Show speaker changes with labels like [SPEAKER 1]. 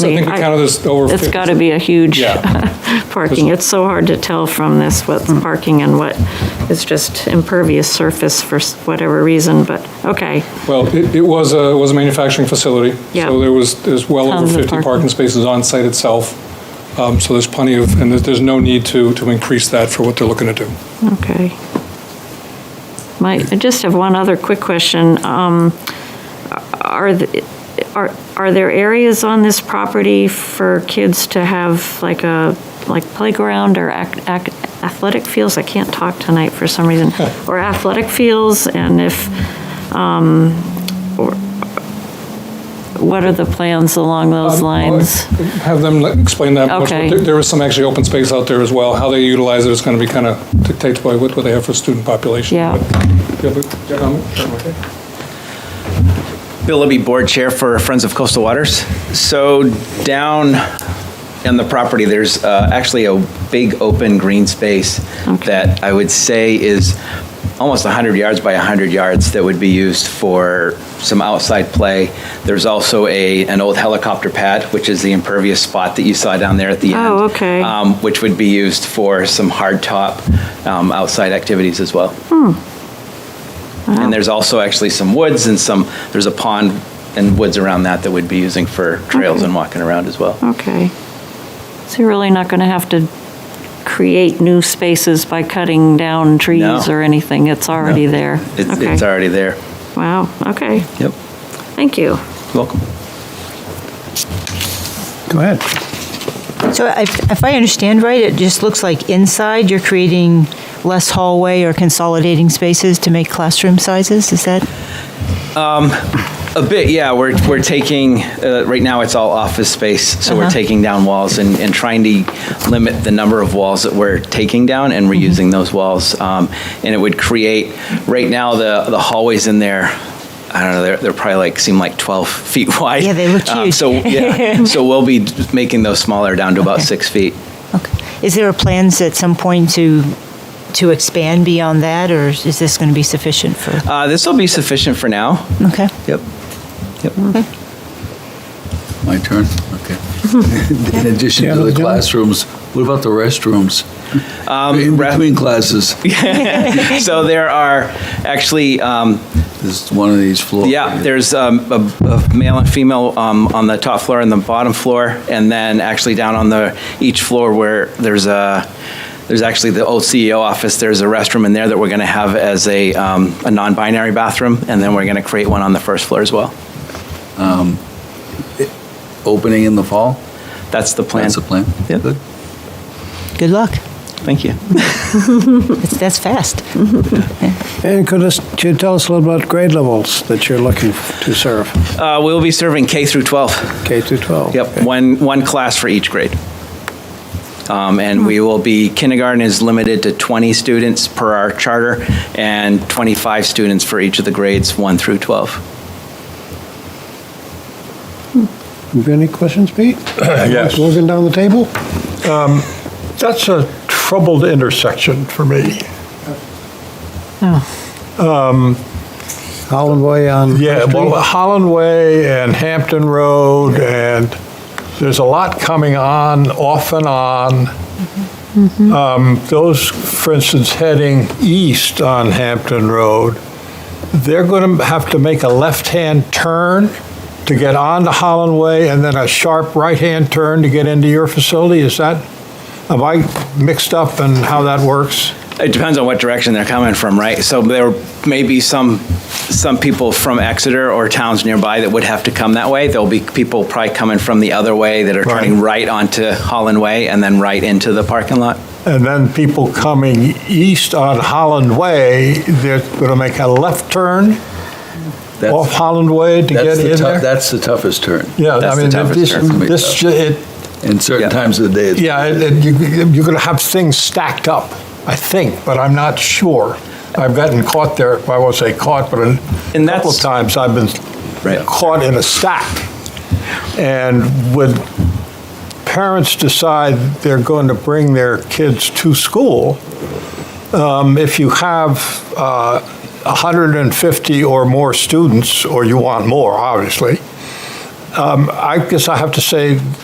[SPEAKER 1] I
[SPEAKER 2] me.
[SPEAKER 1] think we
[SPEAKER 2] I-
[SPEAKER 1] counted this over 50.
[SPEAKER 2] It's got to be a huge
[SPEAKER 1] Yeah.
[SPEAKER 2] parking. It's so hard to tell from this what's parking and what is just impervious surface for s- whatever reason, but, okay.
[SPEAKER 1] Well, it, it was a, it was a manufacturing facility.
[SPEAKER 2] Yeah.
[SPEAKER 1] So there was, there's well over
[SPEAKER 2] Tons of
[SPEAKER 1] 50 parking
[SPEAKER 2] parking.
[SPEAKER 1] spaces on site itself. Um, So there's plenty of, and there's, there's no need to, to increase that for what they're looking to do.
[SPEAKER 2] Okay. My, I just have one other quick question. Um, Are, the- are, are there areas on this property for kids to have like a, like playground or ac- ac- athletic fields? I can't talk tonight for some reason. Or athletic fields, and if, um, or, what are the plans along those
[SPEAKER 1] Um, I'll
[SPEAKER 2] lines?
[SPEAKER 1] Have them let- explain that. much.
[SPEAKER 2] Okay.
[SPEAKER 1] There- There is some actually open space out there as well. How they utilize it is going to be kind of dictated by what what they have for student population.
[SPEAKER 2] Yeah.
[SPEAKER 1] But- Do you have a comment? Okay.
[SPEAKER 3] Bill Libby, Board Chair for Friends of Coastal Waters. So down on the property, there's uh, actually a big open green space that I would say is almost 100 yards by 100 yards that would be used for some outside play. There's also a, an old helicopter pad, which is the impervious spot that you saw down there at the end.
[SPEAKER 2] Oh, okay.
[SPEAKER 3] um, Which would be used for some hardtop um, outside activities as well. And there's also actually some woods and some, there's a pond and woods around that that we'd be using for trails and walking around as well.
[SPEAKER 2] Okay. So you're really not going to have to create new spaces by cutting down trees
[SPEAKER 3] No.
[SPEAKER 2] or anything? It's already there?
[SPEAKER 3] It's,
[SPEAKER 2] Okay.
[SPEAKER 3] it's already there.
[SPEAKER 2] Wow, okay,
[SPEAKER 3] Yep.
[SPEAKER 2] thank you.
[SPEAKER 3] Welcome.
[SPEAKER 4] Go ahead.
[SPEAKER 5] So if if I understand right, it just looks like inside you're creating less hallway or consolidating spaces to make classroom sizes, is that?
[SPEAKER 3] A bit, yeah. We're, we're taking, uh, right now it's all office space, so we're
[SPEAKER 5] Uh-huh.
[SPEAKER 3] taking down walls and, and trying to limit the number of walls that we're taking down and
[SPEAKER 5] Mm-hmm.
[SPEAKER 3] reusing those walls. Um, and it would create, right now, the, the hallways in there, I don't know, they're, they're probably like, seem like 12 feet wide.
[SPEAKER 5] Yeah, they look
[SPEAKER 3] Um,
[SPEAKER 5] huge.
[SPEAKER 3] So, yeah, so we'll be making those smaller down to about
[SPEAKER 5] Okay.
[SPEAKER 3] six feet.
[SPEAKER 5] Okay. Is there a plans at some point to, to expand beyond that, or is this going to be sufficient for?
[SPEAKER 3] Uh, this will be sufficient for now.
[SPEAKER 5] Okay.
[SPEAKER 3] Yep. Yep.
[SPEAKER 6] My turn? Okay. In addition
[SPEAKER 4] Yeah,
[SPEAKER 6] to the
[SPEAKER 4] Lieutenant.
[SPEAKER 6] classrooms, what about the restrooms? In
[SPEAKER 3] ra-
[SPEAKER 6] between classes,
[SPEAKER 3] So there are actually, um,
[SPEAKER 6] this is one of these floors.
[SPEAKER 3] Yeah, there's um, a a male and female um, on the top floor and the bottom floor, and then actually down on the, each floor where there's a, there's actually the old CEO office, there's a restroom in there that we're going to have as a, um, a non-binary bathroom, and then we're going to create one on the first floor as well.
[SPEAKER 6] Opening in the fall?
[SPEAKER 3] That's the plan.
[SPEAKER 6] That's the plan?
[SPEAKER 3] Yep.
[SPEAKER 6] Good.
[SPEAKER 5] Good luck.
[SPEAKER 3] Thank you.
[SPEAKER 5] That's that's fast.
[SPEAKER 4] And could us- could you tell us a little about grade levels that you're looking to serve,
[SPEAKER 3] Uh, We'll be serving K through 12.
[SPEAKER 4] K through 12?
[SPEAKER 3] Yep, one, one class for each grade. Um, And we will be, kindergarten is limited to 20 students per our charter, and 25 students for each of the grades, 1 through 12.
[SPEAKER 4] You got Any questions, Pete?
[SPEAKER 7] Yes.
[SPEAKER 4] Looking down the table?
[SPEAKER 7] That's a troubled intersection for me.
[SPEAKER 4] Holland Way on.
[SPEAKER 7] Yeah,
[SPEAKER 4] First
[SPEAKER 7] well, uh,
[SPEAKER 4] Street?
[SPEAKER 7] Holland Way and Hampton Road, and there's a lot coming on, off and on. Um, Those, for instance, heading east on Hampton Road, they're going to have to make a left-hand turn to get onto Holland Way, and then a sharp right-hand turn to get into your facility? Is that, am I mixed up in how that works?
[SPEAKER 3] It depends on what direction they're coming from, right? So there may be some, some people from Exeter or towns nearby that would have to come that way. There'll be people probably coming from the other way that are
[SPEAKER 7] Right.
[SPEAKER 3] turning right onto Holland Way and then right into the parking lot.
[SPEAKER 7] And then people coming east on Holland Way, they're going to make a left turn
[SPEAKER 6] That's-
[SPEAKER 7] off Holland Way to
[SPEAKER 6] that's
[SPEAKER 7] get
[SPEAKER 6] the
[SPEAKER 7] in
[SPEAKER 6] tou-
[SPEAKER 7] there?
[SPEAKER 6] That's the toughest turn.
[SPEAKER 7] Yeah, I
[SPEAKER 3] that's the
[SPEAKER 7] mean,
[SPEAKER 3] toughest
[SPEAKER 7] this,
[SPEAKER 3] turn for
[SPEAKER 6] me,
[SPEAKER 7] this,
[SPEAKER 6] though.
[SPEAKER 7] it,
[SPEAKER 6] In certain
[SPEAKER 3] Yeah.
[SPEAKER 6] times of the day. it's-
[SPEAKER 7] yeah, it- it- you- you're going to have things stacked up, I think, but I'm not sure. I've gotten caught there, I won't say caught, but a
[SPEAKER 3] And
[SPEAKER 7] couple
[SPEAKER 3] that's-
[SPEAKER 7] of times I've been
[SPEAKER 3] Right.
[SPEAKER 7] caught in a stack. And when parents decide they're going to bring their kids to school, um, if you have uh, 150 or more students, or you want more, obviously, Um, I guess I have to say